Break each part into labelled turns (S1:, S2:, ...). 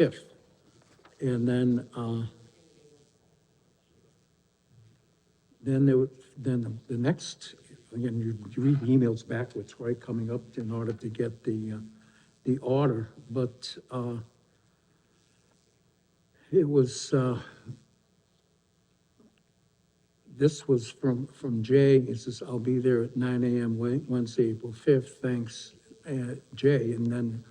S1: If. And then, uh, then there, would- then the next, again, you, you read the emails backwards, right, coming up in order to get the, uh, the order, but, uh, it was, uh, this was from, from Jay, he says, I'll be there at nine AM Wed- Wednesday, April fifth, thanks, uh, Jay. And then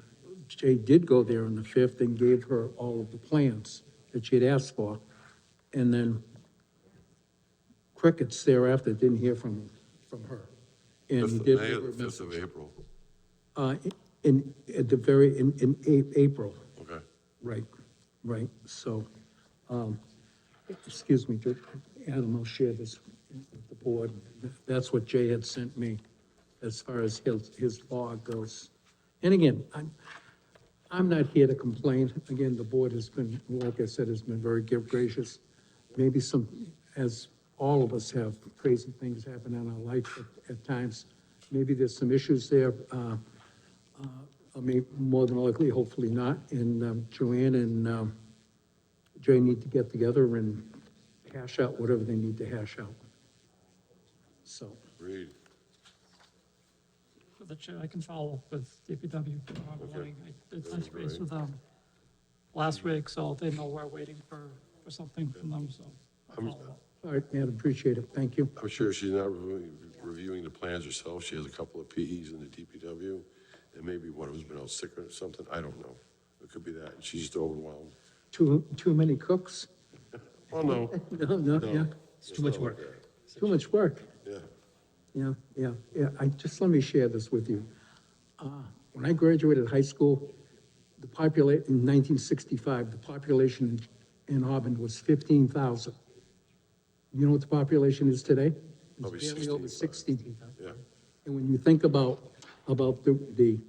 S1: Jay did go there on the fifth and gave her all of the plans that she had asked for. And then crickets thereafter, didn't hear from, from her. And he
S2: Fifth of
S1: did
S2: May
S1: leave
S2: or
S1: her a
S2: the fifth of
S1: message.
S2: April,
S1: Uh, in, at the very, in, in A- April,
S2: okay.
S1: right, right, so, um, excuse me, Ju- Adam, I'll share this with the board. That's what Jay had sent me as far as his, his log goes. And again, I'm, I'm not here to complain. Again, the board has been, like I said, has been very gracious. Maybe some, as all of us have, crazy things happen in our life at- at times. Maybe there's some issues there. Uh, uh, I mean, more than likely, hopefully not. And um, Joanne and um, Jay need to get together and hash out whatever they need to hash out. So,
S2: Read,
S3: with the chair, I can follow up with DPW tomorrow
S2: Okay.
S3: morning. I did
S2: That
S3: touch
S2: would be
S3: base
S2: great.
S3: with them last week, so they know we're waiting for, for something from them, so I'll
S2: I'm-
S3: follow up.
S1: all right, man, appreciate it. Thank you.
S2: I'm sure she's not reviewing, reviewing the plans herself, she has a couple of PEs in the DPW, and maybe one of them's been out sick or something, I don't know. It could be that, and she's just overwhelmed.
S1: Too, too many cooks?
S2: Oh, no,
S1: No, no, yeah,
S4: It's too much work.
S1: too much work.
S2: yeah,
S1: Yeah, yeah, yeah, I, just let me share this with you. Uh, When I graduated high school, the populate, in nineteen sixty-five, the population in in Auburn was fifteen thousand. You know what the population is today? It's
S2: Probably
S1: barely Over
S2: 65.
S1: sixty.
S2: yeah,
S1: And when you think about, about the, the,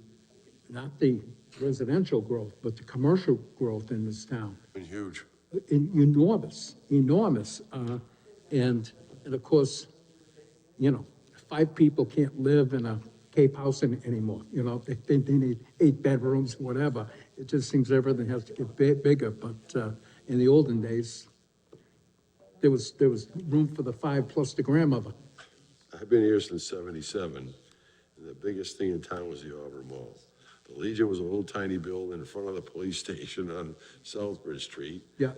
S1: not the residential growth, but the commercial growth in this town,
S2: been huge.
S1: en- enormous, enormous. uh, And, and of course, you know, five people can't live in a Cape house any- anymore, you know, they, they they need eight bedrooms, whatever. It just seems everything has to get bi- bigger, but uh, in the olden days, there was, there was room for the five plus the grandmother.
S2: I've been here since seventy-seven, and the biggest thing in town was the Auburn Mall. The Legion was a little tiny building in front of the police station on Southbridge Street.
S1: Yeah.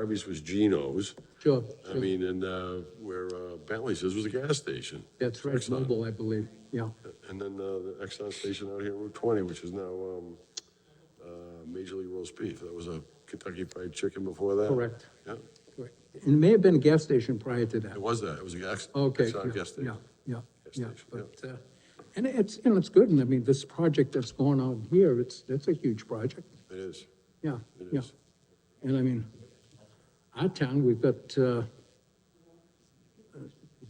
S2: Arby's was Gino's.
S1: Sure.
S2: I
S1: sure.
S2: mean, and uh, where uh, Bentley's is was a gas station.
S1: That's right,
S2: Exxon.
S1: mobile, I believe, yeah.
S2: And then uh, the Exxon station out here, on Route 20, which is now um, uh, Major League Roast Beef. That was a Kentucky Fried Chicken before that.
S1: Correct.
S2: Yeah,
S1: Correct. And it may have been a gas station prior to that.
S2: it was that. It was a gas,
S1: Okay,
S2: Exxon
S1: yeah,
S2: gas
S1: yeah,
S2: station.
S1: yeah,
S2: Gas
S1: yeah,
S2: station, yeah.
S1: but, uh, and it's, and it's good, and I mean, this project that's going on here, it's, it's a huge project,
S2: It is.
S1: yeah,
S2: It
S1: yeah.
S2: is.
S1: And I mean, our town, we've got, uh,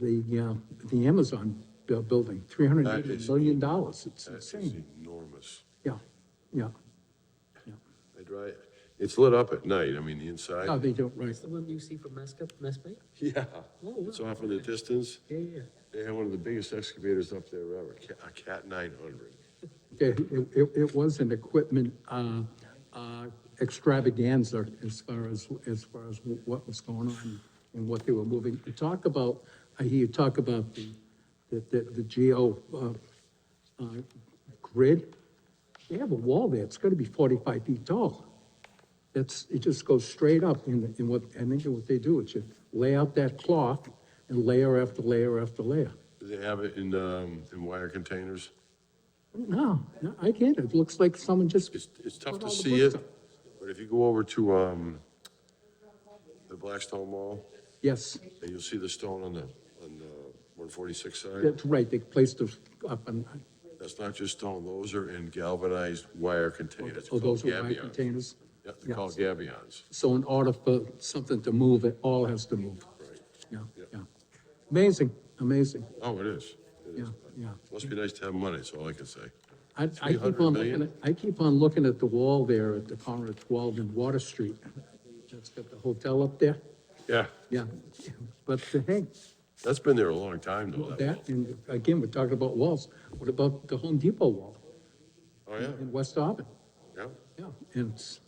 S1: the, uh, the Amazon bu- building, three hundred and
S2: That
S1: eighty
S2: is-
S1: million dollars, it's
S2: That is
S1: insane,
S2: enormous.
S1: yeah, yeah, yeah.
S2: I drive, it's lit up at night. I mean, the inside.
S1: No, they don't, right,
S4: The one you see from Mascot, Mespay?
S2: Yeah.
S4: Oh, wow.
S2: It's off in the distance.
S4: Yeah, yeah.
S2: They had one of the biggest excavators up there ever, Ca- a Cat 900.
S1: it, it- it, it was an equipment, uh, uh, extravaganza as far as, as far as what was going on and what they were moving. You talk about, I hear you talk about the, the, the, the geo, uh, uh, grid. They have a wall there, it's gotta be forty-five feet tall. That's, it just goes straight up in, in what, I think what they do is you lay out that cloth and layer after layer after layer.
S2: Do they have it in, um, in wire containers?
S1: No, no, I get it, it looks like someone just
S2: It's, it's tough
S1: Put
S2: to
S1: all the
S2: see
S1: books
S2: it,
S1: up.
S2: but if you go over to, um, the Blackstone Mall,
S1: Yes,
S2: and you'll see the stone on the, on the one forty-six side.
S1: that's right, they placed us up on,
S2: That's not just stone, those are in galvanized wire containers.
S1: oh, those
S2: called
S1: are my
S2: gabions.
S1: containers.
S2: Yeah, they're called gabions,
S1: So in order for something to move, it all has to move.
S2: right.
S1: Yeah,
S2: Yep.
S1: yeah. Amazing, amazing,
S2: Oh, it is. It is.
S1: yeah, yeah.
S2: Must be nice to have money, that's all I can say.
S1: I, I keep
S2: 300
S1: on
S2: million?
S1: looking, at I keep on looking at the wall there at the corner of 12 and Water Street. That's got the hotel up there,
S2: Yeah,
S1: yeah. But uh, hey,
S2: that's been there a long time though. that wall.
S1: that, and again, we're talking about walls. What about the Home Depot wall
S2: Oh, yeah,
S1: in West Auburn?
S2: yeah.
S1: Yeah, and it's,